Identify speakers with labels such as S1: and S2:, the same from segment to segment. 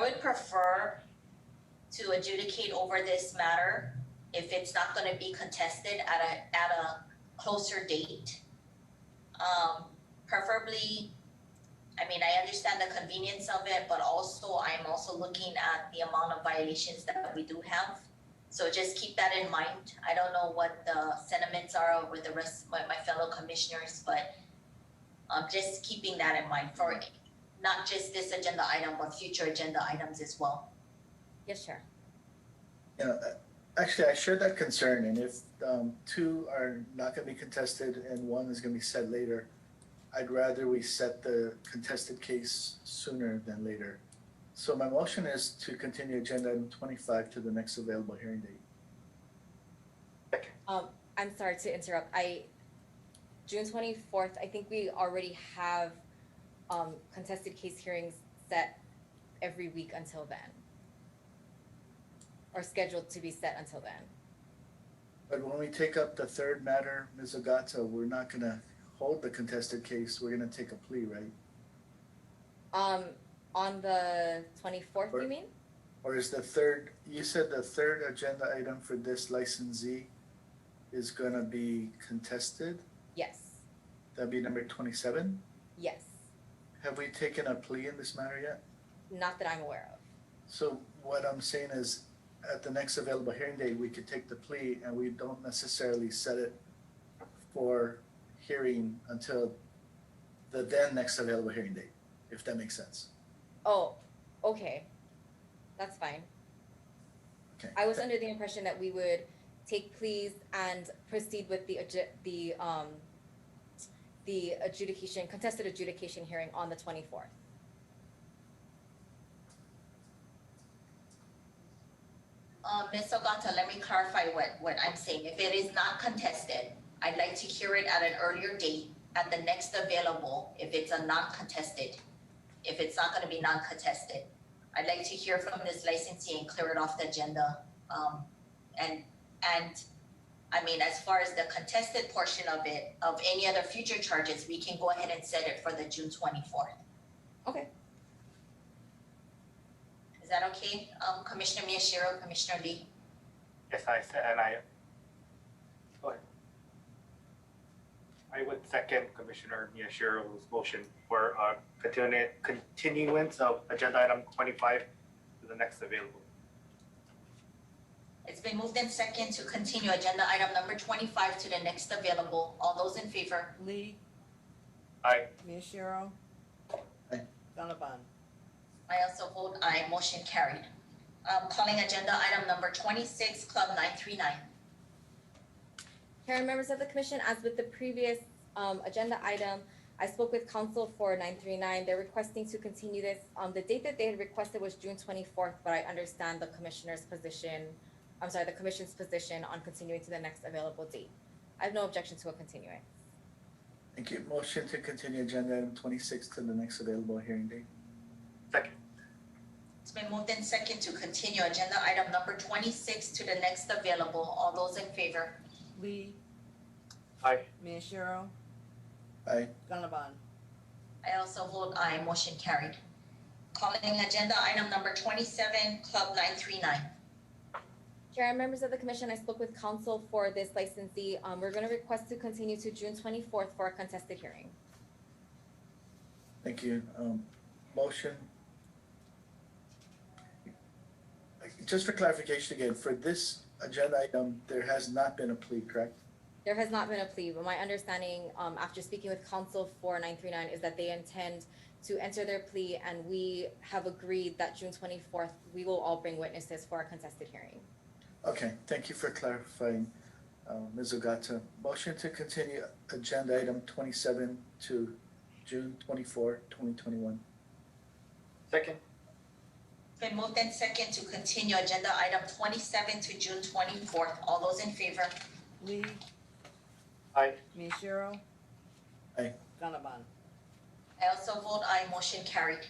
S1: would prefer to adjudicate over this matter if it's not gonna be contested at a, at a closer date. Um, preferably, I mean, I understand the convenience of it, but also I'm also looking at the amount of violations that we do have. So just keep that in mind. I don't know what the sentiments are with the rest, my, my fellow commissioners, but um, just keeping that in mind for not just this agenda item, but future agenda items as well.
S2: Yes, sir.
S3: Yeah, I- actually, I shared that concern, and if um two are not gonna be contested and one is gonna be set later, I'd rather we set the contested case sooner than later. So my motion is to continue agenda item twenty-five to the next available hearing date.
S2: I'm sorry to interrupt. I, June twenty-fourth, I think we already have um contested case hearings set every week until then. Or scheduled to be set until then.
S3: But when we take up the third matter, Ms. Ogata, we're not gonna hold the contested case, we're gonna take a plea, right?
S2: Um, on the twenty-fourth, you mean?
S3: Or is the third, you said the third agenda item for this licensee is gonna be contested?
S2: Yes,
S3: That'd be number twenty-seven.
S2: yes.
S3: Have we taken a plea in this matter yet?
S2: Not that I'm aware of.
S3: So what I'm saying is, at the next available hearing date, we could take the plea and we don't necessarily set it for hearing until the then next available hearing date, if that makes sense.
S2: Oh, okay. That's fine.
S3: Okay.
S2: I was under the impression that we would take pleas and proceed with the adju- the um the adjudication, contested adjudication hearing on the twenty-fourth.
S1: Uh, Ms. Ogata, let me clarify what, what I'm saying. If it is not contested, I'd like to hear it at an earlier date, at the next available, if it's a non-contested. If it's not gonna be non-contested, I'd like to hear from this licensee and clear it off the agenda. Um, and, and, I mean, as far as the contested portion of it, of any other future charges, we can go ahead and set it for the June twenty-fourth.
S2: Okay.
S1: Is that okay? Um, Commissioner Miyashiro, Commissioner Lee?
S4: Yes, I said, and I. Go ahead. I would second Commissioner Miyashiro's motion for uh continu- continuance of agenda item twenty-five to the next available.
S1: It's been moved in second to continue agenda item number twenty-five to the next available. All those in favor?
S5: Lee.
S4: Aye.
S5: Miyashiro.
S3: Aye.
S5: Gannabon.
S1: I also vote aye, motion carried. Um, calling agenda item number twenty-six, Club nine three nine.
S2: Karen, members of the commission, as with the previous um agenda item, I spoke with council for nine three nine, they're requesting to continue this. Um the date that they had requested was June twenty-fourth, but I understand the commissioner's position, I'm sorry, the commission's position on continuing to the next available date. I have no objection to a continuance.
S3: Thank you. Motion to continue agenda item twenty-six to the next available hearing date.
S1: It's been moved in second to continue agenda item number twenty-six to the next available. All those in favor?
S5: Lee.
S4: Aye.
S5: Miyashiro.
S3: Aye.
S5: Gannabon.
S1: I also vote aye, motion carried. Calling agenda item number twenty-seven, Club nine three nine.
S2: Chair and members of the commission, I spoke with counsel for this licensee. Um, we're gonna request to continue to June twenty-fourth for a contested hearing.
S3: Thank you. Um, motion. Just for clarification again, for this agenda item, there has not been a plea, correct?
S2: There has not been a plea, but my understanding, um, after speaking with counsel for nine three nine is that they intend to enter their plea and we have agreed that June twenty-fourth, we will all bring witnesses for a contested hearing.
S3: Okay, thank you for clarifying, uh, Ms. Ogata. Motion to continue agenda item twenty-seven to June 24, 2021.
S4: Second.
S1: It's Been moved in second to continue agenda item twenty-seven to June twenty-fourth. All those in favor?
S5: Lee.
S4: Aye.
S5: Miyashiro.
S3: Aye.
S5: Gannabon.
S1: I also vote aye, motion carried.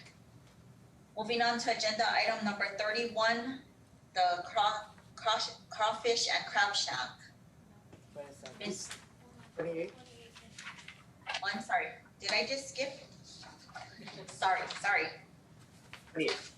S1: Moving on to agenda item number thirty-one, the craw- crawsh- crawfish and crab shack.
S5: Wait a second.
S1: Ms.,
S4: Twenty-eight.
S1: oh, I'm sorry, did I just skip? Sorry, sorry.
S4: Twenty-eight.